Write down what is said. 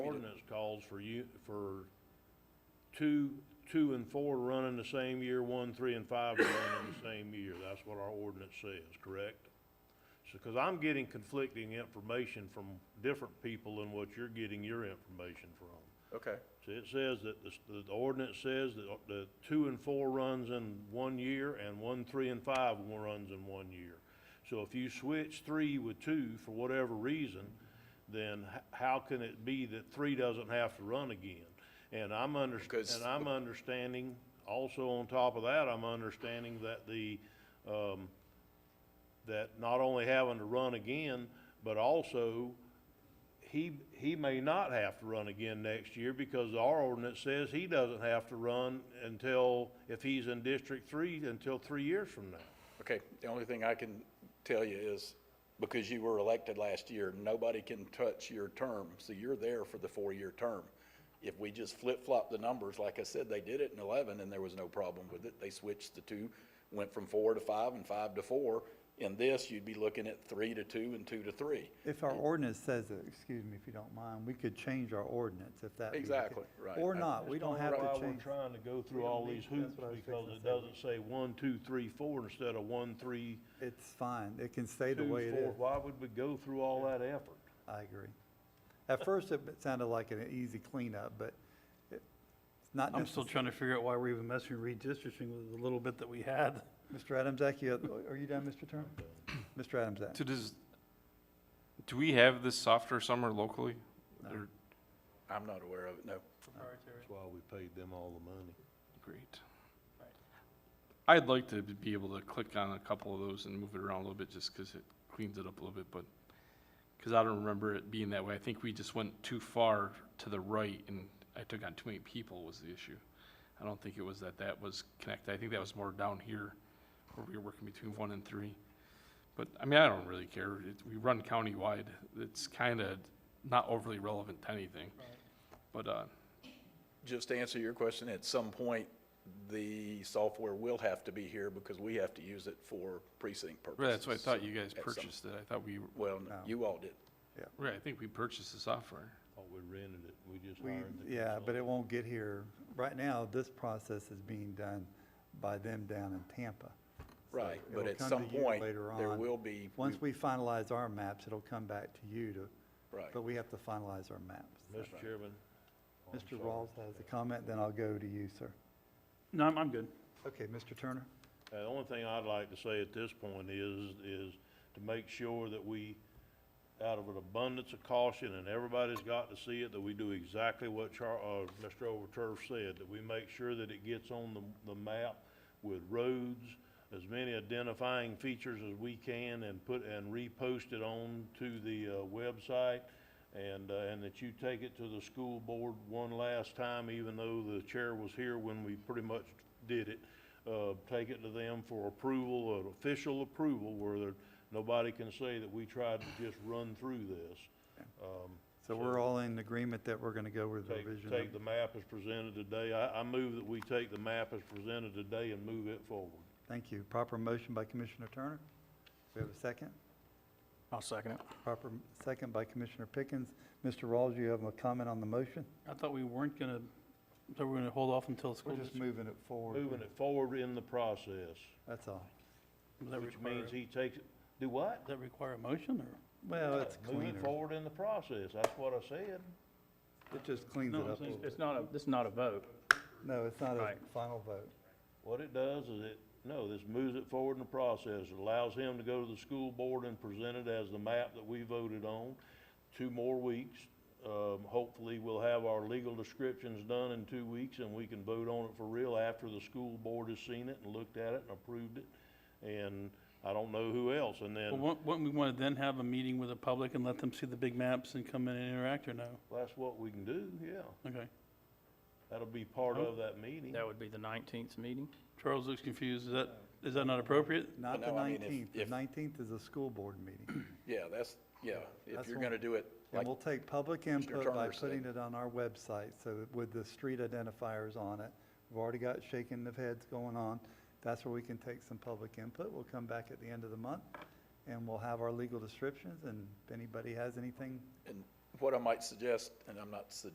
ordinance calls for you, for two, two and four running the same year, one, three, and five running the same year. That's what our ordinance says, correct? So, because I'm getting conflicting information from different people than what you're getting your information from. Okay, So it says that the, s- that the ordinance says that the two and four runs in one year and one, three and five wa- runs in one year. So if you switch three with two for whatever reason, then h- how can it be that three doesn't have to run again? And I'm under, Because- and I'm understanding, also on top of that, I'm understanding that the, um, that not only having to run again, but also he, he may not have to run again next year because our ordinance says he doesn't have to run until, if he's in District Three, until three years from now. okay. The only thing I can tell you is, because you were elected last year, nobody can touch your term, so you're there for the four-year term. If we just flip-flop the numbers, like I said, they did it in eleven, and there was no problem with it. They switched the two, went from four to five and five to four. In this, you'd be looking at three to two and two to three. If our ordinance says it, excuse me if you don't mind, we could change our ordinance if that. be the case. Exactly, right. Or I- not, we don't have to change. That's why we're trying to go We through don't all need- these that's hoops what I was because fixing it to say. doesn't say one, two, three, four instead of one, three, It's fine, it can stay the two, way it four. is. Why would we go through all that effort? I agree. At first, it sounded like an easy cleanup, but it's not I'm still necessary. trying to figure out why we're even messing with redistricting with the little bit that we had. Mr. Adamzak, you, are you done, Mr. Turner? Mr. Adamzak? So does, do we have this software somewhere locally? Or- I'm not aware of it, no. That's why we paid them all the money. Great. I'd like to be able to click on a couple of those and move it around a little bit, just because it cleans it up a little bit, but, because I don't remember it being that way. I think we just went too far to the right, and I took on too many people was the issue. I don't think it was that that was connected. I think that was more down here, where we were working between one and three. But, I mean, I don't really care. It- We run countywide. It's kind of not overly relevant to anything. But, uh, Just to answer your question, at some point, the software will have to be here because we have to use it for precinct purposes. Right, that's what I thought you guys At some- purchased it. I thought we, Well, no, No. you all did. right, I think we purchased the software. Thought we rented it. We just We, hired the yeah, but it consultant. won't get here. Right now, this process is being done by them down in Tampa. So Right, but it'll at come some to you point, later there on. will be- Once we finalize our maps, it'll come back to you to. Right. But we have to finalize our maps. Mr. Chairman. I'm Mr. sorry. Rawls has a comment, then I'll go to you, sir. No, I'm, I'm good. Okay, Mr. Turner? Uh, The only thing I'd like to say at this point is, is to make sure that we, out of an abundance of caution, and everybody's got to see it, that we do exactly what Char, uh, Mr. Overturf said, that we make sure that it gets on the, the map with roads, as many identifying features as we can, and put, and repost it on to the, uh, website, and, uh, and that you take it to the school board one last time, even though the chair was here when we pretty much did it. Uh, take it to them for approval, an official approval, where there, nobody can say that we tried to just run through this. Um, So we're all in agreement that we're gonna go with the Take, revision? take of- the map as presented today. I, I move that we take the map as presented today and move it forward. Thank you. Proper motion by Commissioner Turner. We have a second? I'll second it. Proper m- second by Commissioner Pickens. Mr. Rawls, you have a comment on the motion? I thought we weren't gonna, so we're gonna hold off until the We're school just district. moving it forward. Moving it forward in the process, That's all. Does that which require- means he takes, it do what? Does that require a motion or? Well, it's Move it cleaner. forward in the process. That's what I said. It just cleans it up a little bit. not a, this is not a vote. No, it's not a Right. final vote. What it does is it, no, this moves it forward in the process. It allows him to go to the school board and present it as the map that we voted on. Two more weeks. Um, hopefully, we'll have our legal descriptions done in two weeks and we can vote on it for real after the school board has seen it and looked at it and approved it. And I don't know who else. And Well, then, wouldn't, wouldn't we wanna then have a meeting with the public and let them see the big maps and come in and interact or no? that's what we can do, yeah. Okay. That'll be part of that meeting. That would be the nineteenth meeting? Charles looks confused. Is that, is that not appropriate? Not the no, I mean, if- 19th. The if- 19th is a school board meeting. Yeah, that's, yeah, if That's you're one- gonna do it, And like, we'll take public Commissioner input by Turner said. putting it on our website, so that with the street identifiers on it. We've already got shaking of heads going on. That's where we can take some public input. We'll come back at the end of the month, and we'll have our legal descriptions, and if anybody has anything and what I might suggest, and I'm not suggesting